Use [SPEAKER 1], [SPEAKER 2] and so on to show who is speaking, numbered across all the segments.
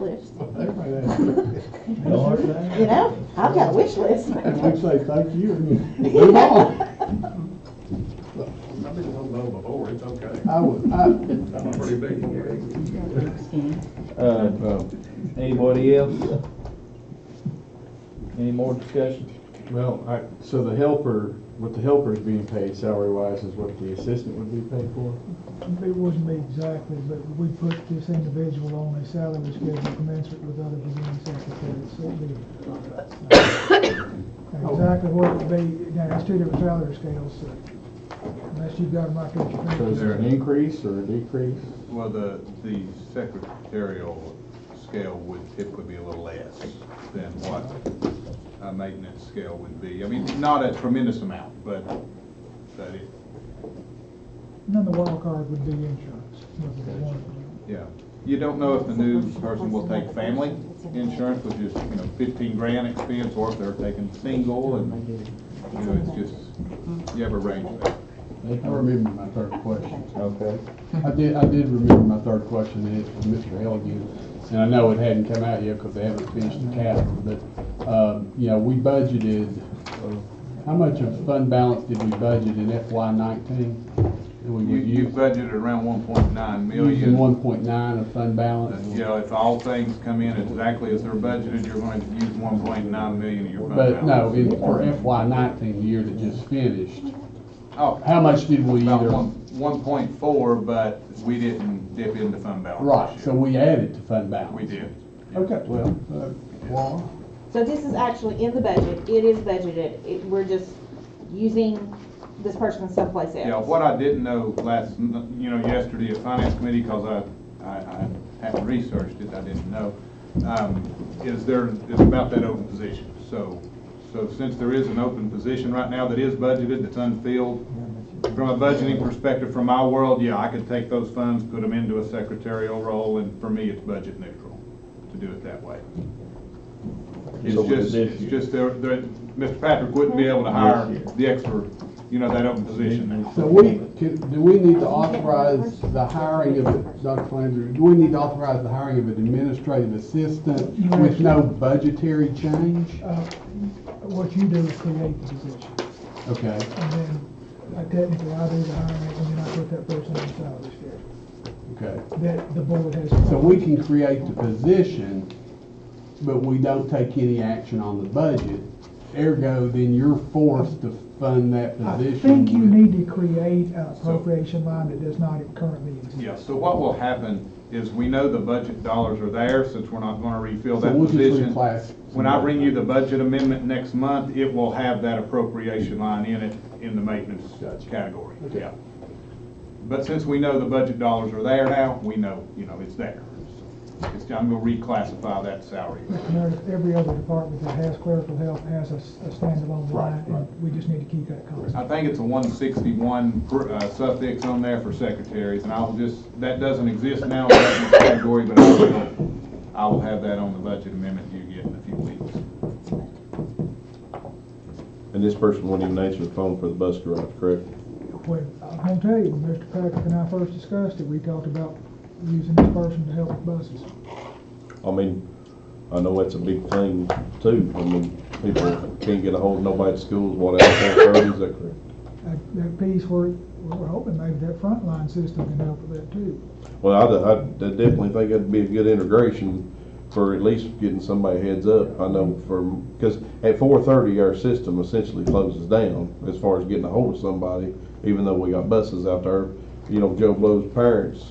[SPEAKER 1] list,
[SPEAKER 2] Everybody has.
[SPEAKER 3] No hard feelings.
[SPEAKER 1] you know? I've got a wish list.
[SPEAKER 2] And we say thank you and move on.
[SPEAKER 4] I've been one low before, it's okay.
[SPEAKER 2] I would, I,
[SPEAKER 4] I'm a pretty big one.
[SPEAKER 3] Uh, Anybody else? Any more discussion?
[SPEAKER 5] Well, I, so the helper, what the helper is being paid salary wise is what the assistant would be paid for?
[SPEAKER 6] It wasn't me exactly, but we put this individual on a salary schedule commensurate with other beginning secretaries. So it'd be Exactly what it would be, now, it's two different salary scales, so unless you've got them right there at your
[SPEAKER 5] So is there an
[SPEAKER 6] fingertips.
[SPEAKER 5] increase or a decrease?
[SPEAKER 7] Well, the, the secretarial scale would typically be a little less than what a maintenance scale would be. I mean, not a tremendous amount, but, but it,
[SPEAKER 6] And then the wild card would be insurance. whether they want it or not.
[SPEAKER 7] yeah. You don't know if the new person will take family insurance, which is, you know, fifteen grand expense, or if they're taking single, and, you know, it's just, you have a range there.
[SPEAKER 5] I remember my third question.
[SPEAKER 3] Okay.
[SPEAKER 5] I did, I did remember my third question, and it's from Mr. Elgin, and I know it hadn't come out yet because they haven't finished the capital, but, um, you know, we budgeted, uh, how much of fund balance did we budget in FY nineteen? And we
[SPEAKER 7] You,
[SPEAKER 5] would
[SPEAKER 7] you
[SPEAKER 5] use,
[SPEAKER 7] budgeted around one point nine million.
[SPEAKER 5] using one point nine of fund balance?
[SPEAKER 7] You know, if all things come in exactly as they're budgeted, you're going to use one point nine million of your fund
[SPEAKER 5] But no,
[SPEAKER 7] balance.
[SPEAKER 5] in, for FY nineteen, the year that just finished,
[SPEAKER 7] Oh,
[SPEAKER 5] how much did we
[SPEAKER 7] about
[SPEAKER 5] either?
[SPEAKER 7] one, one point four, but we didn't dip into fund balance
[SPEAKER 5] Right,
[SPEAKER 7] this
[SPEAKER 5] so
[SPEAKER 7] year.
[SPEAKER 5] we added to fund balance.
[SPEAKER 7] We did.
[SPEAKER 5] Okay, well, uh, Laura?
[SPEAKER 8] So this is actually in the budget, it is budgeted, it, we're just using this person someplace else.
[SPEAKER 7] Yeah, what I didn't know last, n- you know, yesterday at finance committee, because I, I, I hadn't researched it, I didn't know, um, is there, is about that open position. So, so since there is an open position right now that is budgeted, that's unfilled, from a budgeting perspective, from my world, yeah, I could take those funds, put them into a secretarial role, and for me, it's budget neutral to do it that way.
[SPEAKER 3] So
[SPEAKER 7] It's
[SPEAKER 3] with
[SPEAKER 7] just,
[SPEAKER 3] this
[SPEAKER 7] it's
[SPEAKER 3] year-
[SPEAKER 7] just, there, there, Mr. Patrick wouldn't be able to hire the extra, you know, that open position now.
[SPEAKER 5] So we, can- do we need to authorize the hiring of, Dr. Flanders, do we need to authorize the hiring of an administrative assistant with no budgetary change?
[SPEAKER 6] Uh, What you do is create the position,
[SPEAKER 5] Okay,
[SPEAKER 6] and then uh, technically I do the hiring, and then I put that person on the salary schedule
[SPEAKER 5] okay.
[SPEAKER 6] that the board has.
[SPEAKER 5] So we can create the position, but we don't take any action on the budget. Ergo, then you're forced to fund that
[SPEAKER 6] I
[SPEAKER 5] position.
[SPEAKER 6] think you
[SPEAKER 5] with-
[SPEAKER 6] need to create an appropriation line that does not currently exist.
[SPEAKER 7] Yeah, so what will happen is we know the budget dollars are there, since we're not gonna refill
[SPEAKER 5] So
[SPEAKER 7] that
[SPEAKER 5] we'll just
[SPEAKER 7] position.
[SPEAKER 5] reclass.
[SPEAKER 7] When I bring you the budget amendment next month, it will have that appropriation line in it, in the maintenance
[SPEAKER 5] Gotcha.
[SPEAKER 7] category,
[SPEAKER 5] Okay.
[SPEAKER 7] yeah. But since we know the budget dollars are there now, we know, you know, it's there. It's, I'm gonna reclassify that salary.
[SPEAKER 6] Meredith, every other department that has clerical help has a s- a standalone line, and we just need to keep that constant.
[SPEAKER 7] I think it's a one sixty-one uh, suffix on there for secretaries, and I'll just, that doesn't exist now in that category, but I will, I will have that on the budget amendment you get in a few weeks.
[SPEAKER 3] And this person wouldn't even answer the phone for the bus garage, correct?
[SPEAKER 6] When, I'm gonna tell you, when Mr. Patrick and I first discussed it, we talked about using this person to help with buses.
[SPEAKER 3] I mean, I know that's a big thing too. I mean, people can't get a hold of nobody at schools, whatever, is that correct?
[SPEAKER 6] That, that piece where, we're hoping maybe that frontline system can help with that too.
[SPEAKER 3] Well, I, I definitely think that'd be a good integration for at least getting somebody heads up. I know from, because at four thirty, our system essentially closes down as far as getting a hold of somebody, even though we got buses out there. You know, Joe Blow's parents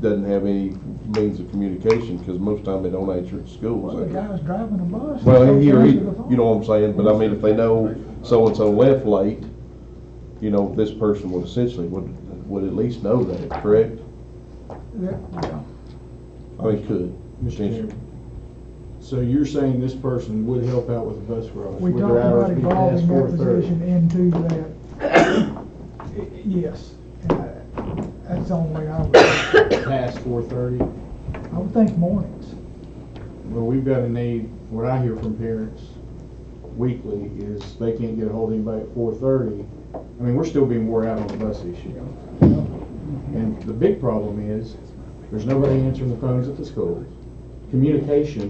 [SPEAKER 3] doesn't have any means of communication because most time they don't answer at school.
[SPEAKER 6] Well,
[SPEAKER 3] so-
[SPEAKER 6] the guy's driving a bus.
[SPEAKER 3] Well, and
[SPEAKER 6] he
[SPEAKER 3] here, he- you know what I'm saying, but I mean, if they know so-and-so left late, you know, this person would essentially, would, would at least know that, correct? I mean, could.
[SPEAKER 2] Mr. Chairman, so you're saying this person would help out with the bus garage?
[SPEAKER 6] We
[SPEAKER 2] would
[SPEAKER 6] talked
[SPEAKER 2] their
[SPEAKER 6] about
[SPEAKER 2] hours be past
[SPEAKER 6] evolving that
[SPEAKER 2] 4:30?
[SPEAKER 6] position into that. Y- Yes, and I- that's the only way I would, I
[SPEAKER 2] Past four thirty?
[SPEAKER 6] would think mornings.
[SPEAKER 2] Well, we've got a need, what I hear from parents weekly is they can't get a hold of anybody at four thirty. I mean, we're still being wore out on the bus issue. And the big problem is, there's nobody answering the phones at the schools. communication